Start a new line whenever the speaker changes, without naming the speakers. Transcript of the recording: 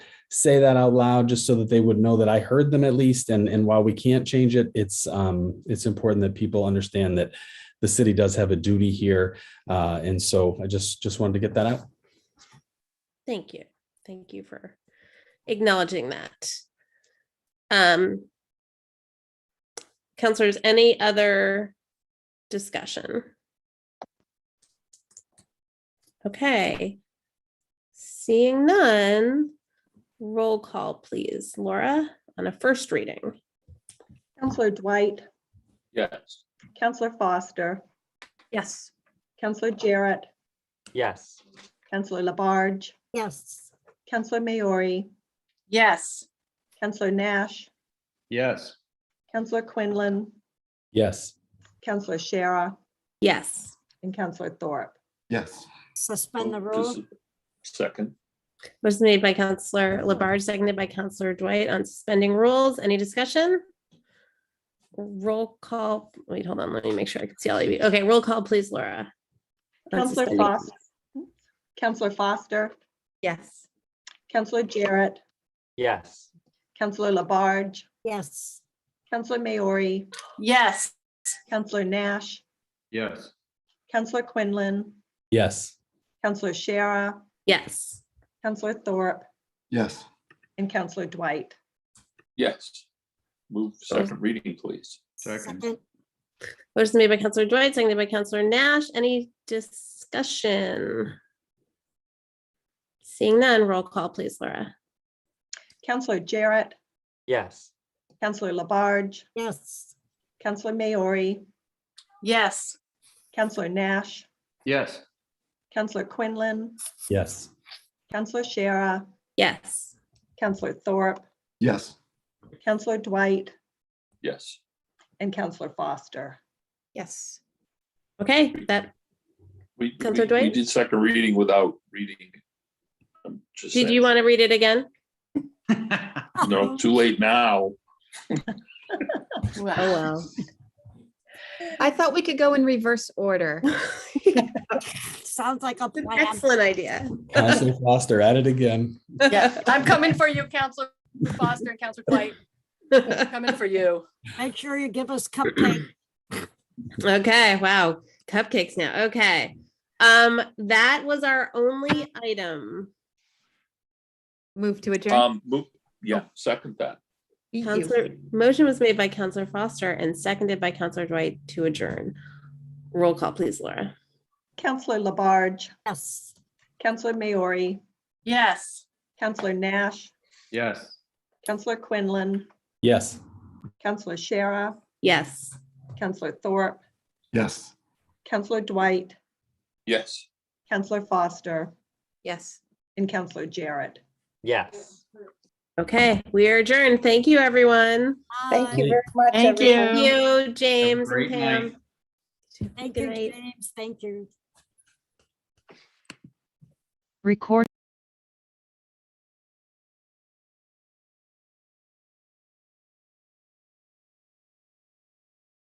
say that out loud just so that they would know that I heard them at least. And, and while we can't change it, it's, um, it's important that people understand that the city does have a duty here. Uh, and so I just, just wanted to get that out.
Thank you. Thank you for acknowledging that. Um, counselors, any other discussion? Okay. Seeing none, roll call, please. Laura, on a first reading.
Counselor Dwight,
Yes.
Counselor Foster,
Yes.
Counselor Jarrett,
Yes.
Counselor Labarge,
Yes.
Counselor Maori,
Yes.
Counselor Nash,
Yes.
Counselor Quinlan,
Yes.
Counselor Shara,
Yes.
and Counselor Thorpe.
Yes.
Suspend the
This
rule.
is- Second,
Was made by Counselor Labarge, seconded by Counselor Dwight on suspending rules. Any discussion? Roll call, wait, hold on, let me make sure I can see all of you. Okay, roll call, please, Laura. on
Counselor
suspending-
Foster, Counselor Foster,
Yes.
Counselor Jarrett,
Yes.
Counselor Labarge,
Yes.
Counselor Maori,
Yes.
Counselor Nash,
yes.
Counselor Quinlan,
Yes.
Counselor Shara,
Yes,
Counselor Thorpe,
Yes.
and Counselor Dwight.
Yes. Move second reading, please.
Second.
motion made by Counselor Dwight, seconded by Counselor Nash. Any discussion? Seeing none, roll call, please, Laura.
Counselor Jarrett,
Yes.
Counselor Labarge,
Yes.
Counselor Maori,
Yes.
Counselor Nash,
Yes.
Counselor Quinlan,
Yes.
Counselor Shara,
Yes,
Counselor Thorpe,
Yes.
Counselor Dwight,
Yes.
and Counselor Foster.
Yes.
okay, that,
We, we
Counselor
we
Dwight?
did second reading without reading. I'm just
did you
saying.
want to read it again?
No, too late now.
Oh, well.
I thought we could go in reverse order.
Sounds like a plan.
Excellent idea.
Counselor Foster at it again.
Yeah, I'm coming for you, Counselor Foster and Counselor Dwight. Coming for you.
Make sure you give us cupcake.
Okay, wow, cupcakes now. Okay. Um, that was our only item.
Move to adjourn.
Um, move, yeah, second that.
Beat you.
Counselor, motion was made by Counselor Foster and seconded by Counselor Dwight to adjourn. Roll call, please, Laura.
Counselor Labarge,
Yes.
Counselor Maori,
Yes.
Counselor Nash,
Yes.
Counselor Quinlan,
Yes.
Counselor Shara,
Yes.
Counselor Thorpe,
Yes.
Counselor Dwight,
Yes.
Counselor Foster,
Yes.
and Counselor Jarrett.
Yes.
Okay, we are adjourned. Thank you, everyone.
Bye.
Thank you very much.
Thank
everyone.
you.
Thank you, James and
great
Pam.
Thank
Good
you,
night.
James. Thank you.
Record.